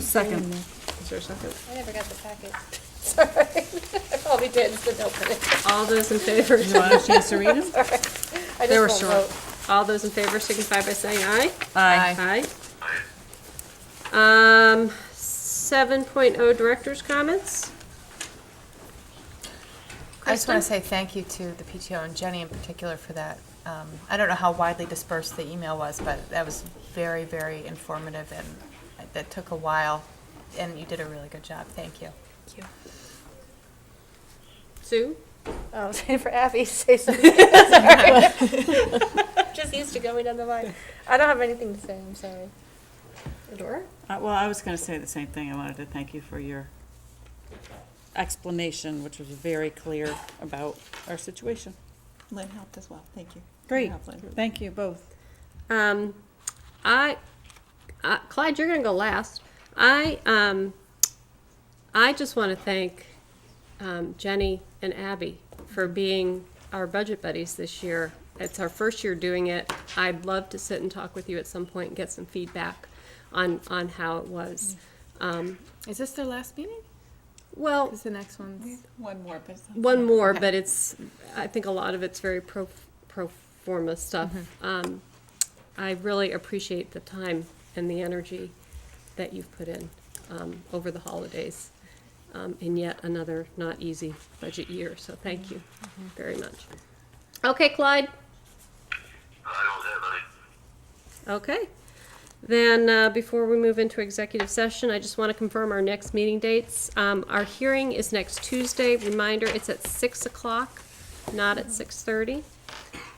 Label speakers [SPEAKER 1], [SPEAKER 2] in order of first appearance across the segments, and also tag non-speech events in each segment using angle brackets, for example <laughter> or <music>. [SPEAKER 1] Second.
[SPEAKER 2] Is there a second?
[SPEAKER 3] I never got the packet. <laughs> Sorry. <laughs> I probably did, but don't put it.
[SPEAKER 2] All those in favor? <laughs>
[SPEAKER 1] Did you want a chance to read them?
[SPEAKER 3] I
[SPEAKER 2] They were
[SPEAKER 3] just won't
[SPEAKER 2] short.
[SPEAKER 3] vote.
[SPEAKER 2] All those in favor signify by saying aye.
[SPEAKER 1] Aye.
[SPEAKER 2] Aye. Um, seven oh director's comments.
[SPEAKER 4] I just
[SPEAKER 2] Kristen?
[SPEAKER 4] want to say thank you to the PTO and Jenny in particular for that. Um, I don't know how widely dispersed the email was, but that was very, very informative and that took a while. And you did a really good job. Thank you.
[SPEAKER 2] Sue?
[SPEAKER 3] Oh, <laughs> I was waiting for Abby to say something. <laughs> Sorry. Just used to going down the line. I don't have anything to say, I'm sorry. Adora?
[SPEAKER 1] Uh, Well, I was going to say the same thing. I wanted to thank you for your explanation, which was very clear about our situation.
[SPEAKER 5] Lynn helped as well, thank you.
[SPEAKER 1] Great.
[SPEAKER 5] Helped Lynn.
[SPEAKER 1] Thank you both.
[SPEAKER 2] Um, I, uh, Clyde, you're gonna go last. I, um, I just want to thank um, Jenny and Abby for being our budget buddies this year. It's our first year doing it. I'd love to sit and talk with you at some point and get some feedback on on how it was. Um,
[SPEAKER 4] Is this their last meeting?
[SPEAKER 2] well,
[SPEAKER 4] the next one's?
[SPEAKER 5] One more, but it's not-
[SPEAKER 2] one more, but it's, I think a lot of it's very pro, pro forma stuff. Um, I really appreciate the time and the energy that you've put in, um, over the holidays. Um, in yet another not easy budget year, so thank you very much. Okay, Clyde?
[SPEAKER 6] I don't have any.
[SPEAKER 2] Okay. Then, uh, before we move into executive session, I just want to confirm our next meeting dates. Um, Our hearing is next Tuesday. Reminder, it's at 6 o'clock, not at 6:30.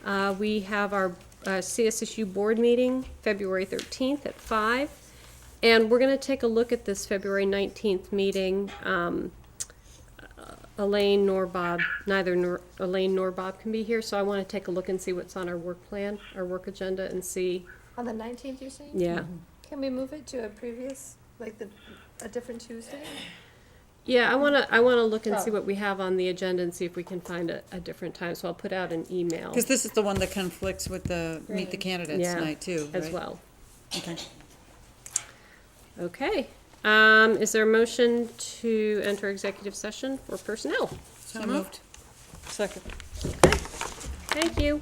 [SPEAKER 2] Uh, We have our uh, CSSU board meeting, February 13th at 5. And we're going to take a look at this February 19th meeting. Um, uh, Elaine nor Bob, neither nor- Elaine nor Bob can be here, so I want to take a look and see what's on our work plan, our work agenda, and see
[SPEAKER 3] On the nineteenth, you're saying?
[SPEAKER 2] yeah.
[SPEAKER 1] Mm-hmm.
[SPEAKER 3] Can we move it to a previous, like the, a different Tuesday?
[SPEAKER 2] Yeah, I want to, I want to look and see
[SPEAKER 3] Oh.
[SPEAKER 2] what we have on the agenda and see if we can find a, a different time. So I'll put out an email
[SPEAKER 1] Because this is the one that conflicts with the Meet the
[SPEAKER 3] Right.
[SPEAKER 1] Candidates
[SPEAKER 2] Yeah,
[SPEAKER 1] night, too,
[SPEAKER 2] as
[SPEAKER 1] right?
[SPEAKER 2] well.
[SPEAKER 1] Okay.
[SPEAKER 2] Okay. Um, is there a motion to enter executive session for personnel?
[SPEAKER 1] So moved. Second.
[SPEAKER 2] Thank you.